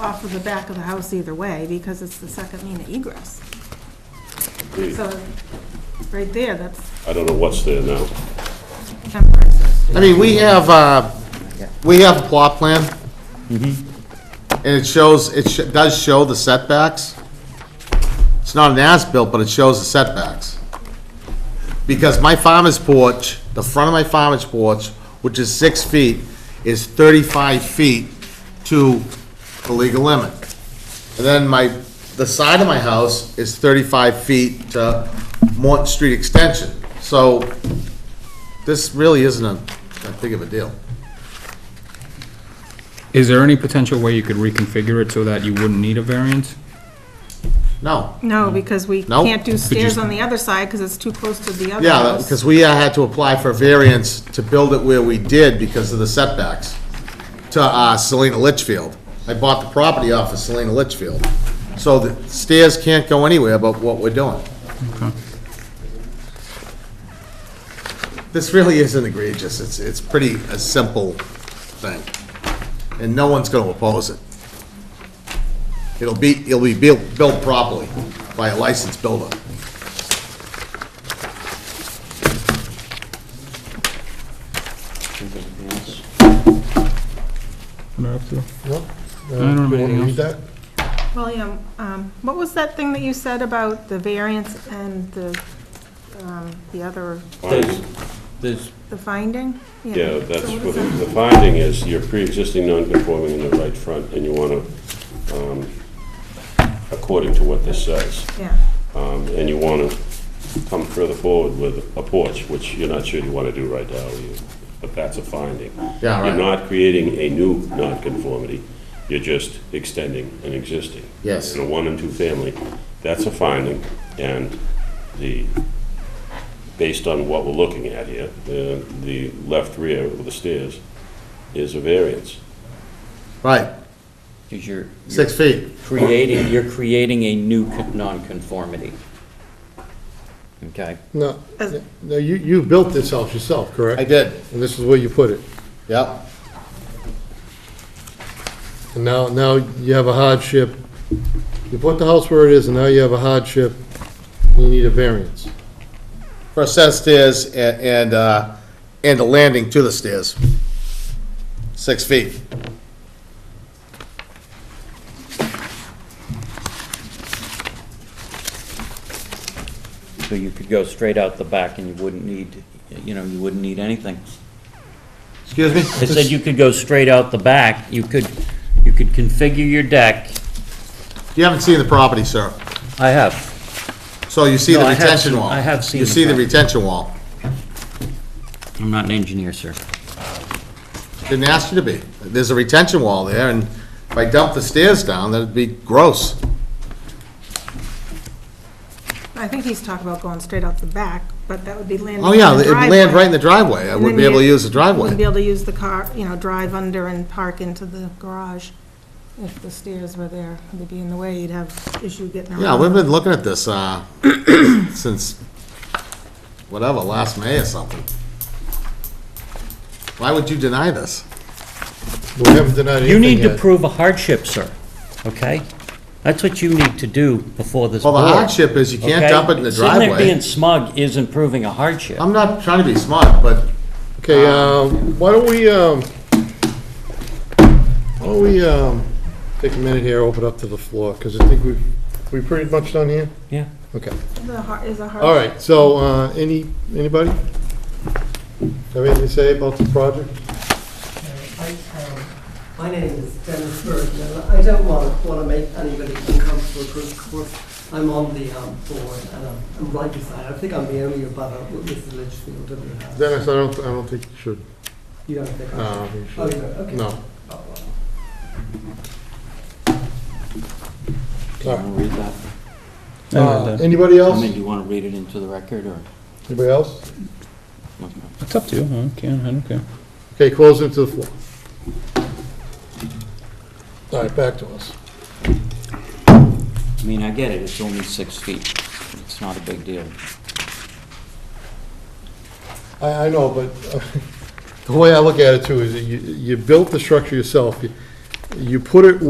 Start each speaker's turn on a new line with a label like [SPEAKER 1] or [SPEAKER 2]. [SPEAKER 1] off of the back of the house either way, because it's the second mean of egress.
[SPEAKER 2] Agreed.
[SPEAKER 1] So, right there, that's
[SPEAKER 2] I don't know what's there now.
[SPEAKER 1] temporary.
[SPEAKER 3] I mean, we have, uh, we have a plot plan. And it shows, it sh- does show the setbacks. It's not an as-built, but it shows the setbacks. Because my farmer's porch, the front of my farmer's porch, which is six feet, is thirty-five feet to the legal limit. And then my, the side of my house is thirty-five feet to Morton Street Extension. So this really isn't a, that big of a deal.
[SPEAKER 4] Is there any potential way you could reconfigure it so that you wouldn't need a variance?
[SPEAKER 3] No.
[SPEAKER 1] No, because we
[SPEAKER 3] Nope.
[SPEAKER 1] can't do stairs
[SPEAKER 4] you-
[SPEAKER 1] on the other side, because it's too close to the other
[SPEAKER 3] Yeah,
[SPEAKER 1] house.
[SPEAKER 3] because we uh, had to apply for variance to build it where we did because of the setbacks to uh, Selena Litchfield. I bought the property off of Selena Litchfield. So the stairs can't go anywhere but what we're doing. This really isn't egregious. It's, it's pretty a simple thing. And no one's going to oppose it. It'll be, it'll be built built properly by a licensed builder.
[SPEAKER 5] No?
[SPEAKER 4] I don't remember anything else.
[SPEAKER 5] Read that?
[SPEAKER 1] William, um, what was that thing that you said about the variance and the, um, the other,
[SPEAKER 2] Finding-
[SPEAKER 6] There's,
[SPEAKER 1] the finding?
[SPEAKER 2] Yeah, that's
[SPEAKER 1] So what
[SPEAKER 2] what
[SPEAKER 1] is
[SPEAKER 2] the the finding is, you're pre-existing non-conforming in the right front, and you want to, according to what this says,
[SPEAKER 1] that? Yeah.
[SPEAKER 2] um, and you want to come further forward with a porch, which you're not sure you want to do right now, you- but that's a finding.
[SPEAKER 3] Yeah, right.
[SPEAKER 2] You're not creating a new non-conformity, you're just extending an existing.
[SPEAKER 3] Yes.
[SPEAKER 2] In a one and two family, that's a finding, and the, based on what we're looking at here, the the left rear of the stairs is a variance.
[SPEAKER 3] Right,
[SPEAKER 6] because you're.
[SPEAKER 3] six
[SPEAKER 6] you're
[SPEAKER 3] feet.
[SPEAKER 6] Creating, you're creating a new con- nonconformity. Okay?
[SPEAKER 5] No,
[SPEAKER 1] As-
[SPEAKER 5] no, you, you built this house yourself, correct?
[SPEAKER 3] I did,
[SPEAKER 5] And this is where you put it.
[SPEAKER 3] yep.
[SPEAKER 5] And now, now you have a hardship. You put the house where it is, and now you have a hardship, and you need a variance.
[SPEAKER 3] For a set of stairs and, and, uh, and a landing to the stairs. Six feet.
[SPEAKER 6] So you could go straight out the back and you wouldn't need, you know, you wouldn't need anything.
[SPEAKER 3] Excuse me?
[SPEAKER 6] It said you could go straight out the back, you could, you could configure your deck.
[SPEAKER 3] You haven't seen the property, sir.
[SPEAKER 6] I have.
[SPEAKER 3] So you see
[SPEAKER 6] No,
[SPEAKER 3] the
[SPEAKER 6] I have
[SPEAKER 3] retention
[SPEAKER 6] seen-
[SPEAKER 3] wall.
[SPEAKER 6] I have seen
[SPEAKER 3] You
[SPEAKER 6] the
[SPEAKER 3] see the
[SPEAKER 6] property.
[SPEAKER 3] retention wall.
[SPEAKER 6] I'm not an engineer, sir.
[SPEAKER 3] Didn't ask you to be. There's a retention wall there, and if I dump the stairs down, that'd be gross.
[SPEAKER 1] I think he's talking about going straight out the back, but that would be landing
[SPEAKER 3] Oh,
[SPEAKER 1] in the
[SPEAKER 3] yeah,
[SPEAKER 1] driveway.
[SPEAKER 3] it'd land right in the driveway. I
[SPEAKER 1] And
[SPEAKER 3] wouldn't
[SPEAKER 1] then
[SPEAKER 3] be able to
[SPEAKER 1] you
[SPEAKER 3] use the
[SPEAKER 1] Wouldn't be
[SPEAKER 3] driveway.
[SPEAKER 1] able to use the car, you know, drive under and park into the garage. If the stairs were there, they'd be in the way, you'd have issue getting around.
[SPEAKER 3] Yeah, we've been looking at this, uh, since, whatever, last May or something. Why would you deny this?
[SPEAKER 5] We haven't denied anything
[SPEAKER 6] You need to
[SPEAKER 5] yet.
[SPEAKER 6] prove a hardship, sir, okay? That's what you need to do before this
[SPEAKER 3] Well,
[SPEAKER 6] board.
[SPEAKER 3] the hardship is you can't
[SPEAKER 6] okay?
[SPEAKER 3] dump it in the
[SPEAKER 6] Sitting there being
[SPEAKER 3] driveway.
[SPEAKER 6] smug isn't proving a hardship.
[SPEAKER 3] I'm not trying to be smart, but
[SPEAKER 5] Okay,
[SPEAKER 6] uh,
[SPEAKER 5] um, why don't we, um, why don't we, um, take a minute here, open up to the floor, because I think we've, we pretty much done here?
[SPEAKER 6] Yeah.
[SPEAKER 5] Okay.
[SPEAKER 1] The har- Is a hard.
[SPEAKER 5] All right, so, uh, any, anybody? Have anything to say about the project?
[SPEAKER 7] I, um, My name is Dennis Burton, and I don't want, want to make anybody uncomfortable, because of course, I'm on the um, board, and I'm- I'm right beside, I think I'm the only uh, abutter with Mrs. Litchfield in the house.
[SPEAKER 5] Dennis, I don't, I don't think you should.
[SPEAKER 7] You don't think
[SPEAKER 5] No, I
[SPEAKER 7] I
[SPEAKER 5] don't think you
[SPEAKER 7] Oh,
[SPEAKER 5] should.
[SPEAKER 7] you don't, okay.
[SPEAKER 5] No.
[SPEAKER 7] Oh, well.
[SPEAKER 6] Do you wanna read that?
[SPEAKER 5] Uh, Anybody
[SPEAKER 6] I
[SPEAKER 5] else?
[SPEAKER 6] mean, do you wanna read it into the record, or?
[SPEAKER 5] Anybody else?
[SPEAKER 4] It's up to you, I can, I don't care.
[SPEAKER 5] Okay, close it to the floor. All right, back to us.
[SPEAKER 6] I mean, I get it, it's only six feet, it's not a big deal.
[SPEAKER 5] I, I know, but uh, the way I look at it too is that you, you built the structure yourself. You- You put it